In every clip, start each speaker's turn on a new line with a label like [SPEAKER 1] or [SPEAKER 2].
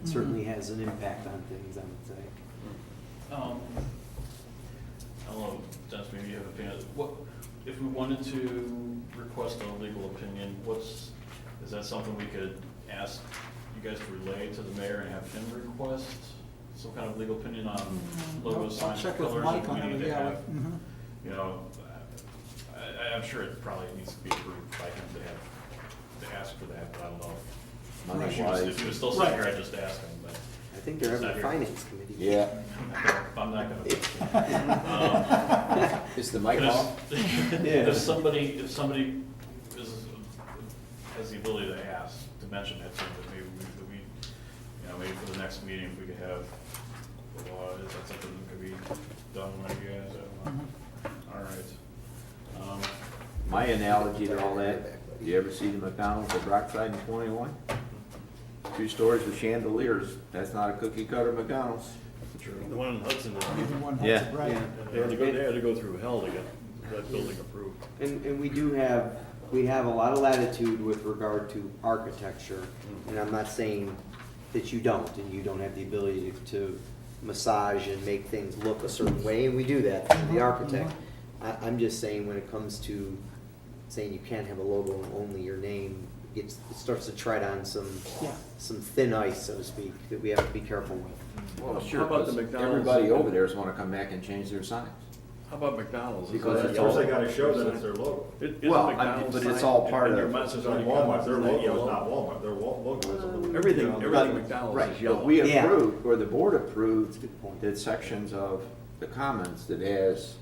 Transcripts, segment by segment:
[SPEAKER 1] it certainly has an impact on things, I would say.
[SPEAKER 2] Um, I don't know, Dennis, maybe you have an opinion. What, if we wanted to request a legal opinion, what's, is that something we could ask you guys to relay to the mayor and have him request some kind of legal opinion on logo
[SPEAKER 3] Mm-hmm. I'll- I'll
[SPEAKER 2] signs,
[SPEAKER 3] check with
[SPEAKER 2] colors
[SPEAKER 3] Mike
[SPEAKER 2] that
[SPEAKER 3] on
[SPEAKER 2] we
[SPEAKER 3] it,
[SPEAKER 2] need to
[SPEAKER 3] yeah.
[SPEAKER 2] have?
[SPEAKER 3] mhm.
[SPEAKER 2] You know, I, I- I'm sure it probably needs to be approved by him to have, to ask for that, but I don't know.
[SPEAKER 3] Right.
[SPEAKER 2] If he was- If he was still sitting here,
[SPEAKER 3] Right.
[SPEAKER 2] I'd just ask him, but
[SPEAKER 1] I think they're having
[SPEAKER 2] Not
[SPEAKER 1] a
[SPEAKER 2] here.
[SPEAKER 1] finance committee.
[SPEAKER 4] Yeah,
[SPEAKER 2] I'm not gonna. Um,
[SPEAKER 3] mm-hmm.
[SPEAKER 4] is the mic
[SPEAKER 2] But if-
[SPEAKER 4] off?
[SPEAKER 2] If somebody, if somebody is, has the ability to ask, to mention that, so that maybe we, that we, you know, maybe for the next meeting, if we could have the law, is that something that could be done by you guys? I don't know. All right. Um,
[SPEAKER 5] My analogy to all that, you ever see the McDonald's at Rockside and Twenty-One?
[SPEAKER 2] Um,
[SPEAKER 5] Two stories with chandeliers, that's not a cookie cutter McDonald's.
[SPEAKER 6] The one in Hudson, uh,
[SPEAKER 3] Either one has
[SPEAKER 5] Yeah.
[SPEAKER 3] it right.
[SPEAKER 1] Yeah.
[SPEAKER 6] they had to go, they had to go through hell to get that building approved.
[SPEAKER 1] And, and we do have, we have a lot of latitude with regard to architecture, and I'm not saying that you don't, and you don't have the ability to- to massage and make things look a certain way, and we do that for the architect. I, I'm just saying, when it comes to saying you can't have a logo and only your name, it's, it starts to tread on some,
[SPEAKER 3] Yeah.
[SPEAKER 1] some thin ice, so to speak, that we have to be careful with.
[SPEAKER 5] Well,
[SPEAKER 6] How
[SPEAKER 5] sure,
[SPEAKER 6] about the
[SPEAKER 5] 'cause
[SPEAKER 6] McDonald's?
[SPEAKER 5] everybody over there is gonna come back and change their signs.
[SPEAKER 6] How about McDonald's?
[SPEAKER 5] Because
[SPEAKER 6] Isn't
[SPEAKER 5] it's
[SPEAKER 6] that
[SPEAKER 5] all-
[SPEAKER 7] They
[SPEAKER 6] yellow?
[SPEAKER 7] gotta show that it's their logo.
[SPEAKER 6] It- isn't
[SPEAKER 5] Well, I-
[SPEAKER 6] McDonald's
[SPEAKER 5] but it's
[SPEAKER 6] sign-
[SPEAKER 5] all part
[SPEAKER 6] and Their
[SPEAKER 5] of-
[SPEAKER 6] message
[SPEAKER 7] It's
[SPEAKER 6] on
[SPEAKER 7] not
[SPEAKER 6] the
[SPEAKER 7] Walmart, their
[SPEAKER 6] McDonald's is
[SPEAKER 7] logo,
[SPEAKER 6] that
[SPEAKER 7] it's not
[SPEAKER 6] yellow.
[SPEAKER 7] Walmart, their wa- logo is a little.
[SPEAKER 6] Everything,
[SPEAKER 7] Yeah.
[SPEAKER 6] everything McDonald's
[SPEAKER 5] Right,
[SPEAKER 6] is
[SPEAKER 5] but
[SPEAKER 6] yellow.
[SPEAKER 5] we
[SPEAKER 1] Yeah.
[SPEAKER 5] approved, or the board approved,
[SPEAKER 1] Good point.
[SPEAKER 5] that sections of the commons that has,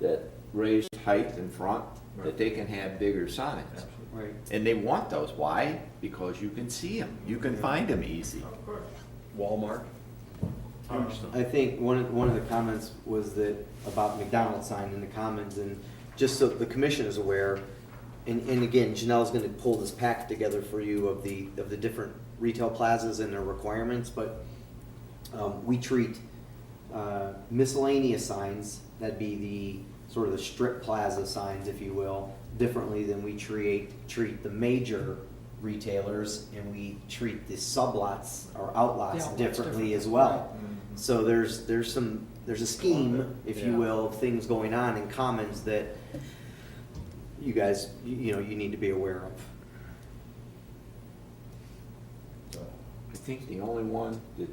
[SPEAKER 5] that raised height in front, that they can have bigger signs.
[SPEAKER 1] Right.
[SPEAKER 5] And they want those, why? Because you can see them, you can find them easy.
[SPEAKER 7] Of course.
[SPEAKER 6] Walmart. Huge stuff.
[SPEAKER 1] I think one of, one of the comments was that, about McDonald's sign in the commons, and just so the commission is aware, and, and again, Janelle's gonna pull this pack together for you of the, of the different retail plazas and their requirements, but, um, we treat, uh, miscellaneous signs, that'd be the, sort of the strip plaza signs, if you will, differently than we treat, treat the major retailers, and we treat the sublots or outlots
[SPEAKER 3] Yeah, outlots
[SPEAKER 1] differently
[SPEAKER 3] different,
[SPEAKER 1] as well.
[SPEAKER 3] right.
[SPEAKER 1] So there's, there's some, there's a scheme, if you
[SPEAKER 6] Yeah.
[SPEAKER 1] will, of things going on in commons that you guys, you you know, you need to be aware of.
[SPEAKER 5] I think the only one that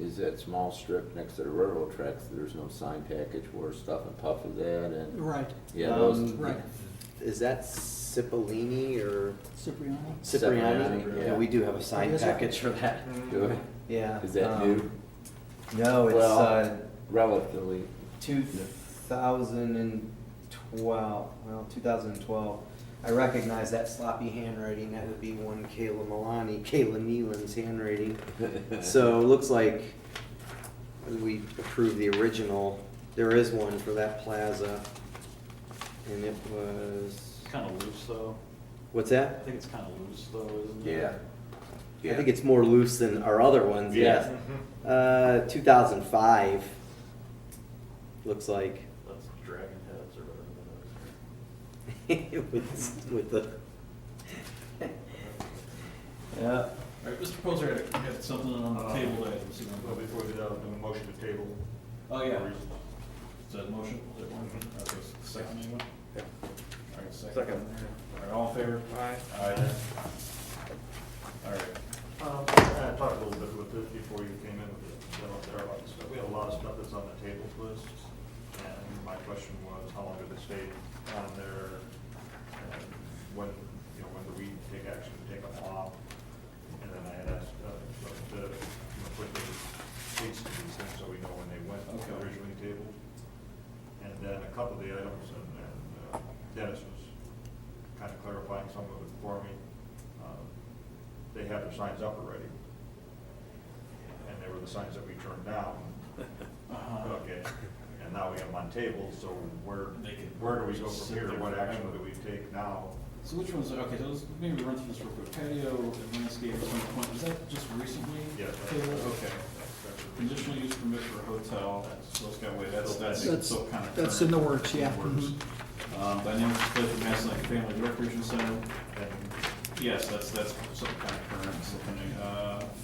[SPEAKER 5] is that small strip next to the railroad tracks, there's no sign package where Stuff and Puff is at and,
[SPEAKER 3] Right,
[SPEAKER 5] yeah, those.
[SPEAKER 1] Um,
[SPEAKER 3] right.
[SPEAKER 1] Is that Cipollini or
[SPEAKER 3] Cipriano.
[SPEAKER 1] Cipriani?
[SPEAKER 5] Cipriani,
[SPEAKER 1] Yeah,
[SPEAKER 5] yeah.
[SPEAKER 1] we do have a sign
[SPEAKER 3] Is it?
[SPEAKER 1] package for that.
[SPEAKER 5] Good.
[SPEAKER 1] Yeah.
[SPEAKER 5] Is that
[SPEAKER 1] um,
[SPEAKER 5] new?
[SPEAKER 1] No, it's,
[SPEAKER 5] Well-
[SPEAKER 1] uh,
[SPEAKER 5] Relatively,
[SPEAKER 1] two thousand and twelve, well, two thousand and twelve. I recognize that sloppy handwriting, that would be one Kayla Milani, Kayla Nealon's handwriting. So it looks like we approved the original, there is one for that plaza. And it was,
[SPEAKER 2] It's kind of loose, though.
[SPEAKER 1] what's
[SPEAKER 2] I
[SPEAKER 1] that?
[SPEAKER 2] think it's kind of loose, though, isn't it?
[SPEAKER 5] yeah.
[SPEAKER 1] I think it's more loose than our other ones, yes.
[SPEAKER 2] Yeah.
[SPEAKER 1] Uh, two thousand five, looks like.
[SPEAKER 2] That's dragon heads or whatever
[SPEAKER 1] with, with the. Yeah.
[SPEAKER 2] that is. All right, Mr. Poser, I have something on the
[SPEAKER 7] Uh,
[SPEAKER 2] table that I haven't seen.
[SPEAKER 7] Well, before we do that, I'll do a motion to table.
[SPEAKER 2] Oh, yeah. Is that a motion? Is that one?
[SPEAKER 7] Mm-hmm.
[SPEAKER 2] Okay, s- second anyone?
[SPEAKER 6] Yeah.
[SPEAKER 2] All right, second.
[SPEAKER 6] Second.
[SPEAKER 2] All right, all in favor?
[SPEAKER 6] Aye.
[SPEAKER 2] Aye. All right.
[SPEAKER 7] Um, I talked a little bit with this before you came in with the, you know, there are a lot of stuff, we have a lot of stuff that's on the tables list. And my question was, how long did it stay on there? And When, you know, when do we take action, to take them off? And then I had asked, uh, to, you know, put the dates to these things so we know when they went
[SPEAKER 2] Okay.
[SPEAKER 7] originally tabled. And then a couple of the items, and and, uh, Dennis was kind of clarifying some of it for me. Um, They had their signs up already. And they were the signs that we turned down.
[SPEAKER 2] Uh-huh.
[SPEAKER 7] Okay, and now we have them on table, so where,
[SPEAKER 2] They can
[SPEAKER 7] where do we go
[SPEAKER 2] sit
[SPEAKER 7] from here?
[SPEAKER 2] there
[SPEAKER 7] What action
[SPEAKER 2] forever.
[SPEAKER 7] do we take now?
[SPEAKER 2] So which ones, okay, so let's maybe run through this real quick. Patio and landscape, at some point, was that just recently?
[SPEAKER 7] Yeah.
[SPEAKER 2] tabled? Okay. Conditional use permit for a hotel, so let's go away, that's, that's
[SPEAKER 3] That's-
[SPEAKER 2] still kind of.
[SPEAKER 3] that's in the works, yeah. Mm-hmm.
[SPEAKER 2] Works. Um, dynamic display for Mass Lake Family Recreation Center,
[SPEAKER 7] And
[SPEAKER 2] yes, that's, that's some kind of current, something, uh,